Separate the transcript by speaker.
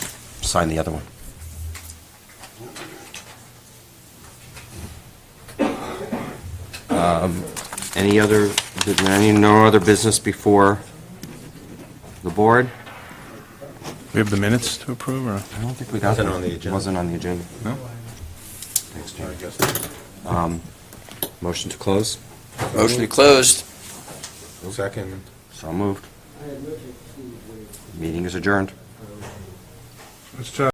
Speaker 1: sign the other one. Um, Any other, any, no other business before the board?
Speaker 2: We have the minutes to approve, or?
Speaker 1: I don't think we got
Speaker 3: Wasn't
Speaker 1: them.
Speaker 3: on the agenda.
Speaker 1: Wasn't on the agenda.
Speaker 2: No.
Speaker 1: Thanks, Jim. Motion to close?
Speaker 4: Motion to closed.
Speaker 3: Second.
Speaker 1: So moved. Meeting is adjourned.